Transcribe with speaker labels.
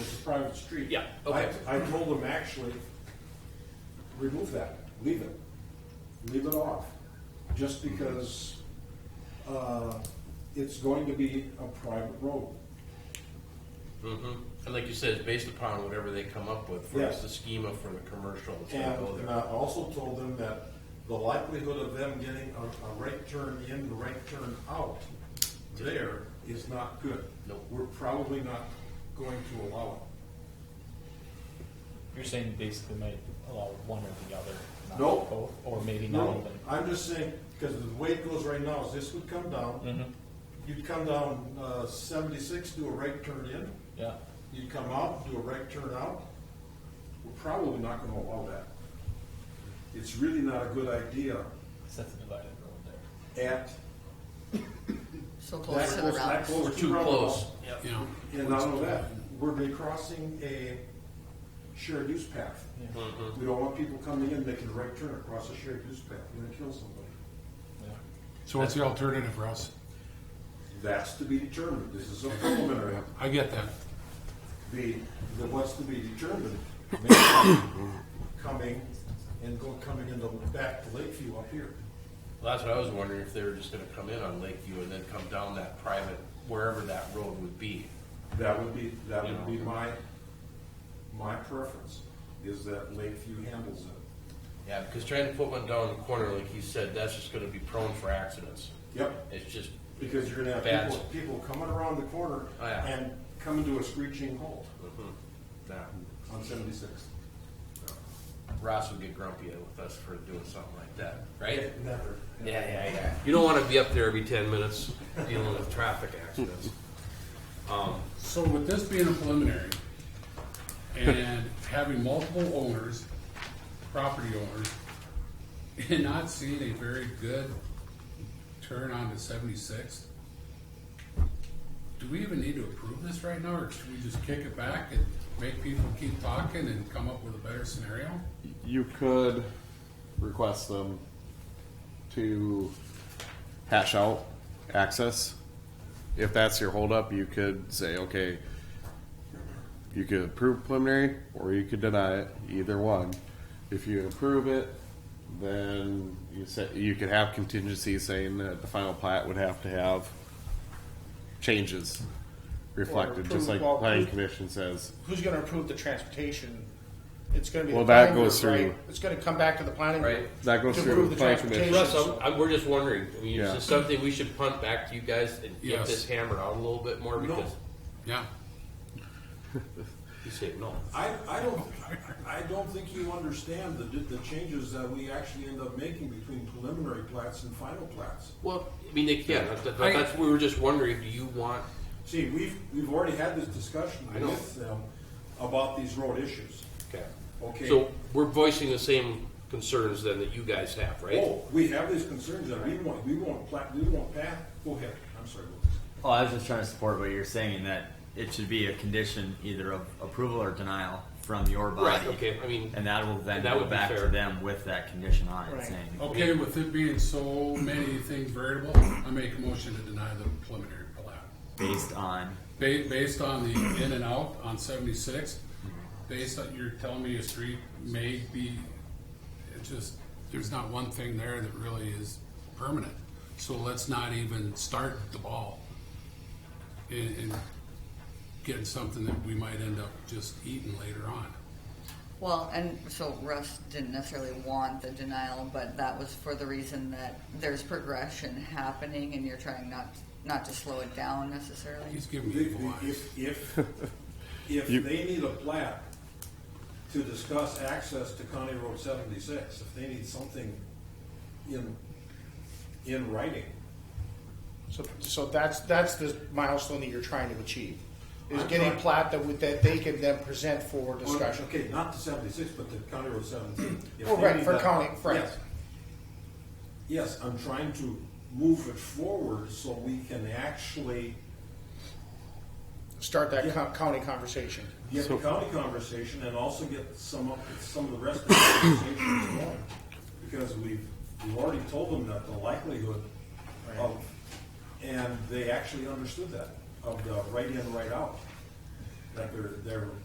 Speaker 1: street.
Speaker 2: Yeah,
Speaker 1: I,
Speaker 2: okay.
Speaker 1: I told them actually, remove that, leave it, leave it off, just because, uh, it's going to be a private road.
Speaker 3: Mhm. And like you said, it's based upon whatever they come up with, for
Speaker 1: Yeah.
Speaker 3: us, the schema for the commercial that's gonna go
Speaker 4: And
Speaker 3: there.
Speaker 4: I also told them that the likelihood of them getting a, a right turn in, the right turn out there is not good.
Speaker 3: Nope.
Speaker 4: We're probably not going to allow it.
Speaker 5: You're saying basically might allow one or the other, not
Speaker 4: Nope.
Speaker 5: both, or maybe not
Speaker 4: No,
Speaker 5: even.
Speaker 4: I'm just saying, because the way it goes right now is this would come
Speaker 2: Mm-hmm.
Speaker 4: down,
Speaker 5: Mhm.
Speaker 4: you'd come down, uh, seventy-six, do a right turn in,
Speaker 5: Yeah.
Speaker 4: you'd come out, do a right turn out.
Speaker 1: We're probably not gonna allow that. It's really not a good idea
Speaker 5: 'cause that's a divided road there.
Speaker 1: at,
Speaker 6: So
Speaker 1: that
Speaker 6: close to the
Speaker 1: close, that
Speaker 6: route.
Speaker 1: close.
Speaker 3: We're
Speaker 1: to
Speaker 3: too
Speaker 1: roundabout.
Speaker 3: close,
Speaker 2: Yep.
Speaker 3: you know.
Speaker 1: And not only that,
Speaker 4: We're be crossing a
Speaker 1: shared use path.
Speaker 5: Yeah.
Speaker 3: Mhm.
Speaker 1: We don't want people coming in making a right turn across a shared use path, and then kill somebody.
Speaker 5: Yeah.
Speaker 7: So what's the alternative, Russ?
Speaker 1: That's to be determined, this is a preliminary.
Speaker 7: I get that.
Speaker 1: The, the what's to be determined,
Speaker 4: coming and go coming into back to Lakeview up here.
Speaker 3: Well, That's what I was wondering, if they were just gonna come in on Lakeview and then come down that private, wherever that road would be.
Speaker 1: that would be, that would be my, my preference, is that Lakeview handles it.
Speaker 3: Yeah, because trying to put one down in the corner, like you said, that's just gonna be prone for accidents.
Speaker 1: Yep,
Speaker 3: It's just,
Speaker 1: because you're gonna have
Speaker 3: Bad.
Speaker 1: people, people coming around the corner
Speaker 3: Oh, yeah.
Speaker 1: and coming to a screeching halt
Speaker 3: mhm. Nah.
Speaker 1: on seventy-six.
Speaker 3: Ross would get grumpy with us for doing something like that, right?
Speaker 1: Never.
Speaker 3: Yeah, yeah, yeah. You don't wanna be up there every ten minutes dealing with traffic accidents. Um,
Speaker 7: So with this being a preliminary and having multiple owners, property owners, and not seeing a very good turn onto seventy-six, do we even need to approve this right now, or should we just kick it back and make people keep talking and come up with a better scenario?
Speaker 8: you could request them to hash out access. If that's your holdup, you could say, okay, you could approve preliminary or you could deny it, either one. If you approve it, then you said, you could have contingency saying that the final plat would have to have changes reflected, just like
Speaker 9: Or approve-
Speaker 8: planning commission says.
Speaker 9: who's gonna approve the transportation? It's gonna be. the
Speaker 8: Well, that
Speaker 9: planning
Speaker 8: goes
Speaker 9: group,
Speaker 8: through-
Speaker 9: right? It's gonna come back to the planning. group
Speaker 3: Right.
Speaker 8: That goes
Speaker 9: to
Speaker 8: through
Speaker 9: approve
Speaker 8: the planning commission.
Speaker 3: Russ,
Speaker 9: transportation.
Speaker 3: I'm, I'm, we're just wondering, I mean, is
Speaker 8: Yeah.
Speaker 3: this something we should punt back to you guys and get
Speaker 7: Yes.
Speaker 3: this hammered out a little bit more because
Speaker 7: Yeah,
Speaker 3: you say no.
Speaker 4: I, I don't, I don't think you understand the, the changes that we actually end up making between preliminary plats and final plats.
Speaker 3: Well, I mean, they can, that's, that's, that's- we were just wondering, do you want,
Speaker 4: See, we've, we've already had this discussion
Speaker 3: I know.
Speaker 4: with them about these road issues.
Speaker 3: okay.
Speaker 4: Okay.
Speaker 3: So we're voicing the same concerns then that you guys have, right?
Speaker 4: Oh, we have these concerns that we want, we want plat, we want path, go ahead, I'm sorry.
Speaker 10: Well, Oh, I was just trying to support what you're saying that it should be a condition either of approval or denial from your
Speaker 3: Right,
Speaker 10: body.
Speaker 3: okay, I mean,
Speaker 10: And that will then
Speaker 3: And that
Speaker 10: go
Speaker 3: would be
Speaker 10: back
Speaker 3: fair.
Speaker 10: to them with that condition on it
Speaker 9: Right.
Speaker 10: saying.
Speaker 7: okay, with it being so many things variable, I make a motion to deny the preliminary plat.
Speaker 10: Based on,
Speaker 7: Ba- Based on the in and out on seventy-six, based on, you're telling me a street may be, it just, there's not one thing there that really is permanent. So let's not even start the ball in, in getting something that we might end up just eating later on.
Speaker 6: Well, and so Russ didn't necessarily want the denial, but that was for the reason that there's progression happening and you're trying not, not to slow it down necessarily.
Speaker 7: He's giving
Speaker 4: The-
Speaker 7: people
Speaker 4: the-
Speaker 7: eyes.
Speaker 4: If, if, if
Speaker 8: You-
Speaker 4: they need a plat to discuss access to County Road seventy-six, if they need something in, in writing,
Speaker 9: So, so that's, that's the milestone that you're trying to achieve, is getting a plat that would, that they can then present for discussion.
Speaker 4: Okay, not to seventy-six, but to County Road seventeen. If
Speaker 9: Oh,
Speaker 4: they
Speaker 9: right,
Speaker 4: need
Speaker 9: for
Speaker 4: that-
Speaker 9: county, right.
Speaker 4: Yes. Yes, I'm trying to move it forward so we can actually
Speaker 9: Start that co- county conversation.
Speaker 4: get the county conversation and also get some of, some of the rest of the conversations going. Because we've, we've already told them that the likelihood of, and they actually understood that, of the right in, right out. That they're, they're